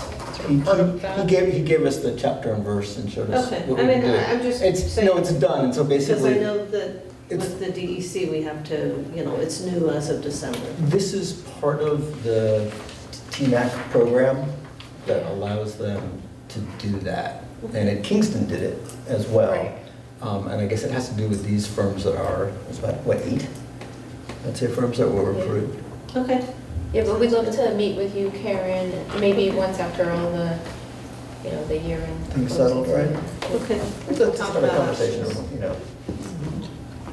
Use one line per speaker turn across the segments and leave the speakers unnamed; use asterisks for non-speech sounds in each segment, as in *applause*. sort
He,
of part of
he- he
that?
gave, he gave us the chapter and verse and showed us
Okay,
what
I
we
mean,
can do.
I'm just
It's, no,
saying-
it's done, and so
Because I
basically,
know that
it's-
with the DEC, we have to, you know, it's new as of December.
this is part of the TMAC program that allows them to do that. And at Kingston did it as well.
Right.
Um, and I guess it has to do with these firms that are, it's about, what, eight? I'd say firms that were
Yeah.
approved.
Okay,
Yeah, but we'd love to meet with you, Karen, maybe once after all the, you know, the year end.
Things settled,
closes.
right?
okay.
It's a, it's a conversation, you know.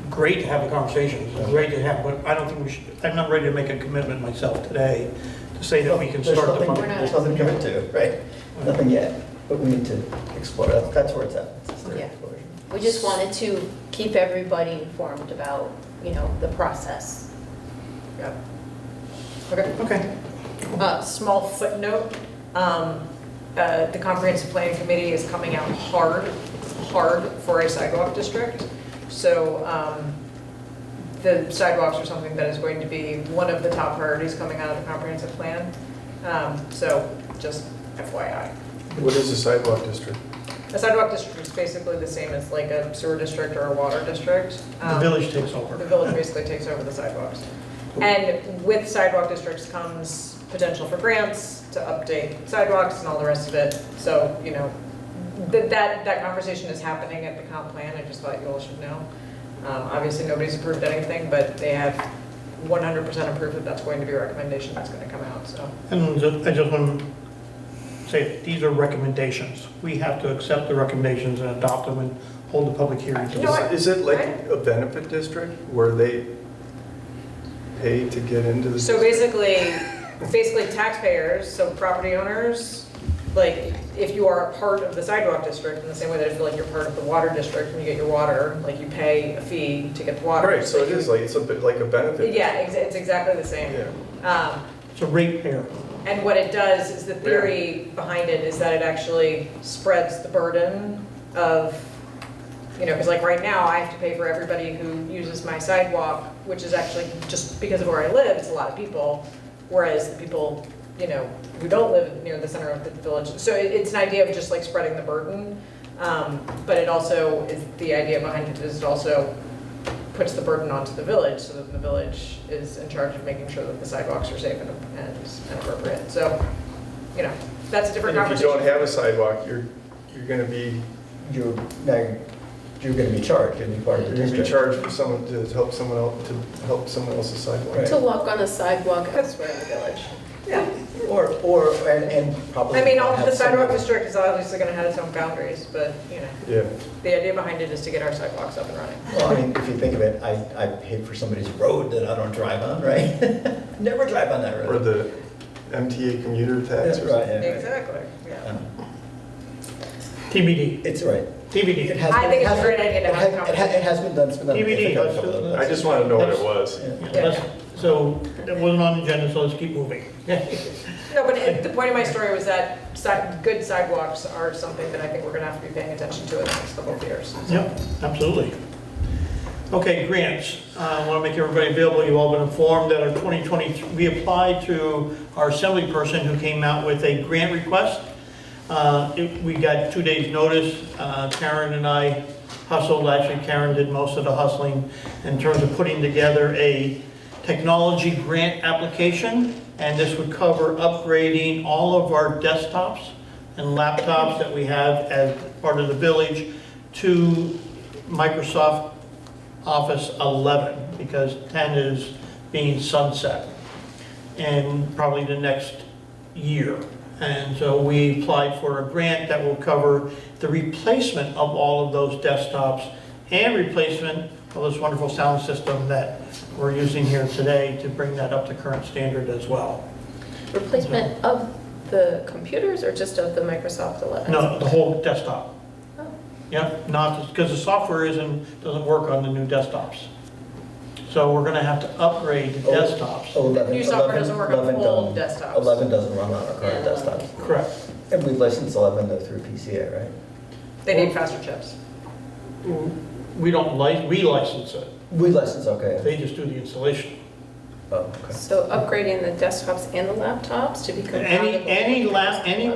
great to have a conversation, it's great to have, but I don't think we should, I'm not ready to make a commitment myself today to say that we can
There's
start the
nothing-
We're
fund.
not-
There's nothing to commit to, right? Nothing yet, but we need to explore, that. that's where it's at. It's just their
Yeah.
exploration.
We just wanted to keep everybody informed about, you know, the process.
Yep.
Okay.
Okay,
Uh, Small footnote, um, uh, the Comprehensive Planning Committee is coming out hard, hard for a sidewalk district. So um, the sidewalks are something that is going to be one of the top priorities coming out of the comprehensive plan. Um, So just FYI.
What is the sidewalk district?
A sidewalk district is basically the same as like a sewer district or a water district.
the
Um,
village takes
The
over.
village basically takes over the sidewalks. And with sidewalk districts comes potential for grants to update sidewalks and all the rest of it. So, you know, th- that, that conversation is happening at the comp plan, I just thought you all should know. Um, Obviously, nobody's approved anything, but they have 100% approved that that's going to be a recommendation that's going to come out, so.
And ju- I just want to say, that these are recommendations. We have to accept the recommendations and adopt them and hold the public hearing. to
You know
this.
what?
Is it like a benefit district where they pay to get into the?
So basically, basically taxpayers, so property owners, like, if you are a part of the sidewalk district, in the same way that I feel like you're part of the water district, when you get your water, like, you pay a fee to get the water.
Right, so it is like, it's a bit like a benefit.
Yeah, ex- it's exactly the same.
Yeah.
Um,
It's a rate pair.
And what it does is the theory behind it is that it actually spreads the burden of, you know, because like right now, I have to pay for everybody who uses my sidewalk, which is actually just because of where I live, it's a lot of people. Whereas the people, you know, who don't live near the center of the village, so it- it's an idea of just like spreading the burden. Um, But it also is, the idea behind it is it also puts the burden onto the village, so that the village is in charge of making sure that the sidewalks are safe and and appropriate. So, you know, that's a different
And if you
conversation.
don't have a sidewalk, you're, you're gonna be,
You're, now, you're gonna be charged, you're gonna be part of the
you're gonna be
district.
charged for someone to help someone else, to help someone else's sidewalk.
Right.
To walk on a sidewalk elsewhere in the village.
Yeah.
Or, or, and, and probably.
I mean, all
have
the sidewalk
someone-
district is obviously gonna have its own boundaries, but, you know,
Yeah.
the idea behind it is to get our sidewalks up and running.
Well, I mean, if you think of it, I, I paid for somebody's road that I don't drive on, right? *laughs* Never drive on that
Or
road.
the MTA commuter
That's
tax or
right,
something.
yeah, right.
Exactly, yeah.
Um,
TBD,
It's right. It
TBD.
has
I
been-
think
it
it's a
has
great
been-
idea to
it
have a
has- It ha- it has been done, it's been done.
TBD,
I think, a couple of
I just wanna know what it was.
times. Yeah.
Let's- So, that wasn't on the agenda, so let's keep moving.
No, but it- the point of my story was that si- good sidewalks are something that I think we're gonna have to be paying attention to in the next couple of years.
Yep, absolutely. Okay, grants. Uh, I want to make everybody available, you've all been informed that our 2020, we applied to our assembly person who came out with a grant request. Uh, it- We got two days' notice. Uh, Karen and I hustled, actually Karen did most of the hustling in terms of putting together a technology grant application. And this would cover upgrading all of our desktops and laptops that we have as part of the village to Microsoft Office 11, because 10 is being sunset in probably the next year. And so we applied for a grant that will cover the replacement of all of those desktops and replacement of this wonderful sound system that we're using here today to bring that up to current standard as well.
Replacement of the computers or just of the Microsoft 11?
No, the whole desktop.
Oh.
Yep, not, because the software isn't, doesn't work on the new desktops. So we're gonna have to upgrade the
Oh.
desktops.
Eleven-
New software doesn't work on
11
old
don't-
desktops.
11 doesn't run on our current
Yeah.
desktops.
Correct.
And we license 11 though through PCA, right?
They need faster chips.
We don't license, we license it.
We license, okay.
They just do the installation.
Oh, okay.
So upgrading the desktops and the laptops to become.
Any,
compatible
any
with
lap, any